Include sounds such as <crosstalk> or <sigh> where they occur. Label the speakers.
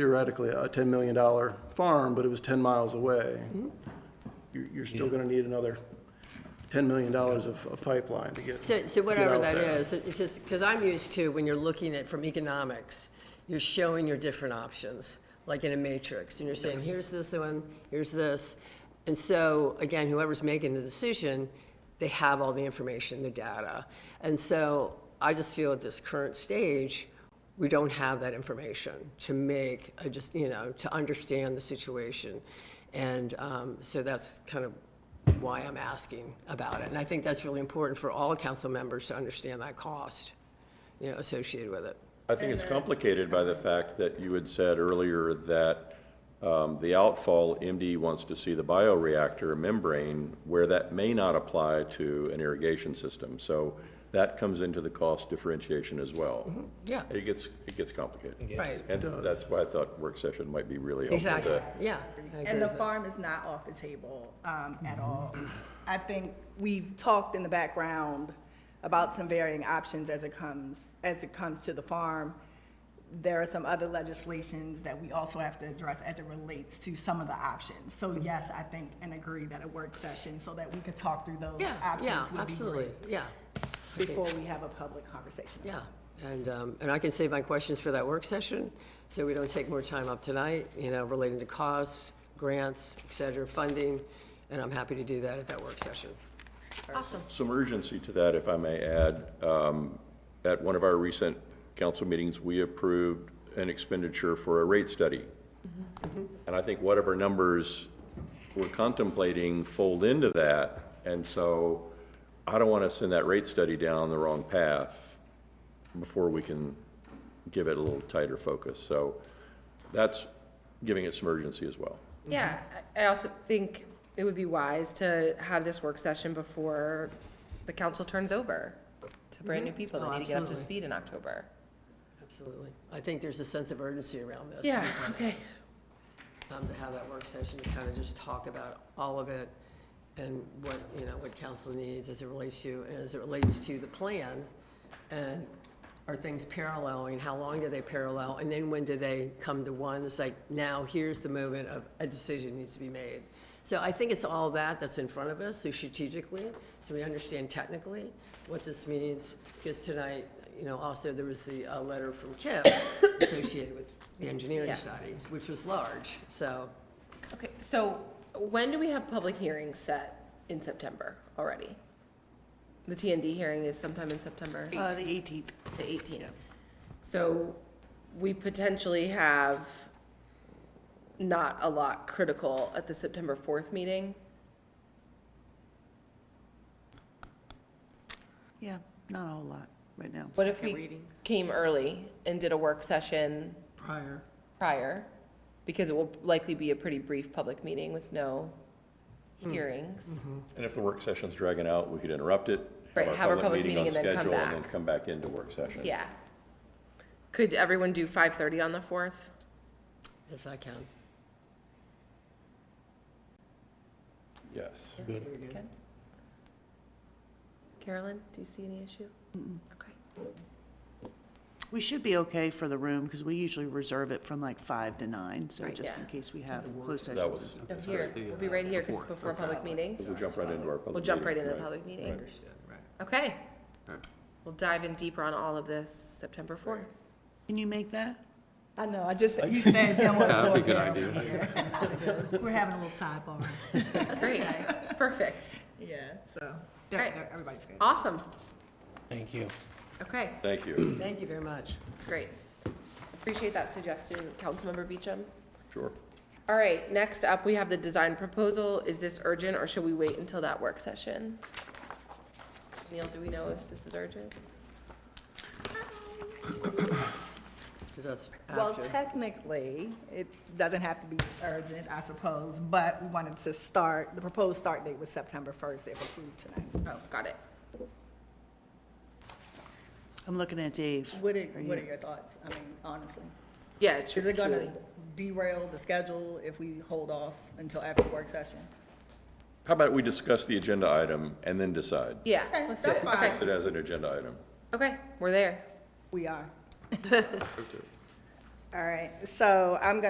Speaker 1: theoretically a $10 million farm, but it was 10 miles away,
Speaker 2: Mm-hmm.
Speaker 1: you're, you're still going to need another $10 million of, of pipeline to get.
Speaker 2: So, so
Speaker 1: get
Speaker 2: whatever
Speaker 1: out
Speaker 2: that
Speaker 1: there.
Speaker 2: is, it- it's just, because I'm used to, when you're looking at, from economics, you're showing your different options, like in a matrix, and you're saying, here's this one, here's this. And so, again, whoever's making the decision, they have all the information, the data. And so I just feel at this current stage, we don't have that information to make, I just, you know, to understand the situation. And um, so that's kind of why I'm asking about it. And I think that's really important for all council members to understand that cost, you know, associated with it.
Speaker 3: I think
Speaker 2: uh,
Speaker 3: it's complicated by the fact that you had said earlier that um, the outfall, MD wants to see the bioreactor membrane where that may not apply to an irrigation system. So that comes into the cost differentiation as well.
Speaker 2: Yeah,
Speaker 3: It gets, it gets complicated.
Speaker 2: Mm-hmm. right,
Speaker 3: And that's why I thought work session might be really helpful. to-
Speaker 2: exactly, yeah. I agree
Speaker 4: And the
Speaker 2: with that. Mm-hmm.
Speaker 4: farm is not off the table um, at all. I think we've talked in the background about some varying options as it comes, as it comes to the farm. There are some other legislations that we also have to address as it relates to some of the options. So
Speaker 2: Mm-hmm.
Speaker 4: yes, I think and agree that a work session so that we could talk through those
Speaker 2: Yeah,
Speaker 4: options
Speaker 2: yeah,
Speaker 4: would be
Speaker 2: absolutely, yeah,
Speaker 4: great before we have a public conversation.
Speaker 2: yeah. And, um, and I can save my questions for that work session, so we don't take more time up tonight, you know, relating to costs, grants, et cetera, funding, and I'm happy to do that at that work session.
Speaker 3: Some urgency to that, if I may add. Um, At one of our recent council meetings, we approved an expenditure for a rate study. And I think whatever numbers we're contemplating fold into that. And so I don't want to send that rate study down the wrong path before we can give it a little tighter focus. So that's giving it some urgency as well.
Speaker 5: Yeah, I I also think it would be wise to have this work session before the council turns over to brand-new people
Speaker 2: Oh,
Speaker 5: that need to get up to
Speaker 2: absolutely.
Speaker 5: speed in October.
Speaker 2: Absolutely. I think there's a sense of urgency around this.
Speaker 5: Yeah, okay.
Speaker 2: Um, to have that work session to kind of just talk about all of it and what, you know, what council needs as it relates to, and as it relates to the plan. And are things paralleling? How long do they parallel? And then when do they come to one? It's like, now here's the moment of a decision needs to be made. So I think it's all that that's in front of us, so strategically, so we understand technically what this means. Because tonight, you know, also there was the, uh letter from Kip associated with the engineering
Speaker 5: Yeah.
Speaker 2: studies, which was large, so.
Speaker 5: Okay, so when do we have public hearings set in September already? The TND hearing is sometime in September?
Speaker 6: Uh, the 18th.
Speaker 5: The eighteenth. So we potentially have not a lot critical at the September fourth meeting.
Speaker 6: Yeah, not a whole lot right now.
Speaker 5: What if we came early and did a work session
Speaker 2: Prior.
Speaker 5: prior? Because it will likely be a pretty brief public meeting with no Hmm. hearings.
Speaker 3: And if the work session's dragging out, we could interrupt it.
Speaker 5: Right, have our public
Speaker 3: on
Speaker 5: meeting and then come
Speaker 3: schedule, And then
Speaker 5: back.
Speaker 3: come back into work session.
Speaker 5: Yeah. Could everyone do five thirty on the fourth?
Speaker 2: Yes, I can.
Speaker 3: Yes.
Speaker 5: Carolyn, do you see any issue? Okay.
Speaker 6: We should be okay for the room, because we usually reserve it from like 5 to 9, so just
Speaker 5: yeah.
Speaker 6: in case we have closed
Speaker 3: That
Speaker 6: sessions.
Speaker 3: was,
Speaker 5: So here, we'll be right here because it's before a uh, public meeting.
Speaker 3: we'll jump right into our public meeting.
Speaker 5: We'll jump right into the public meeting. Okay. We'll dive in deeper on all of this September fourth.
Speaker 6: Can you make that?
Speaker 4: I know, I just, you
Speaker 2: <laughs>
Speaker 4: said, don't want to
Speaker 7: That'd
Speaker 4: go
Speaker 7: be a good
Speaker 4: down
Speaker 7: idea.
Speaker 4: here. <laughs> We're having a
Speaker 2: <laughs>
Speaker 4: little sidebar.
Speaker 5: That's great. It's perfect.
Speaker 4: Yeah, so,
Speaker 5: Alright.
Speaker 4: everybody's good.
Speaker 5: Awesome.
Speaker 7: Thank you.
Speaker 5: Okay,
Speaker 3: Thank you.
Speaker 2: Thank you very much.
Speaker 5: great. Appreciate that suggestion, Councilmember Beecham.
Speaker 3: Sure.
Speaker 5: All right, next up, we have the design proposal. Is this urgent or should we wait until that work session? Neil, do we know if this is urgent?
Speaker 2: Because that's
Speaker 4: Um, Well,
Speaker 2: after.
Speaker 4: technically, it doesn't have to be urgent, I suppose, but we wanted to start, the proposed start date was September 1st, if approved tonight.
Speaker 5: Oh, got it.
Speaker 6: I'm looking at Dave.
Speaker 4: What are,
Speaker 6: you-
Speaker 4: what are your thoughts, I mean, honestly?
Speaker 5: Yeah, it's
Speaker 4: Is
Speaker 5: true,
Speaker 4: it going
Speaker 5: truly.
Speaker 4: to derail the schedule if we hold off until after the work session?
Speaker 3: How about we discuss the agenda item and then decide?
Speaker 5: Yeah,
Speaker 4: Okay,
Speaker 5: let's do
Speaker 4: that's
Speaker 5: it. Okay,
Speaker 4: fine.
Speaker 3: It as an agenda item.
Speaker 4: <laughs>
Speaker 5: okay, we're there.
Speaker 4: We are. All right, so I'm gonna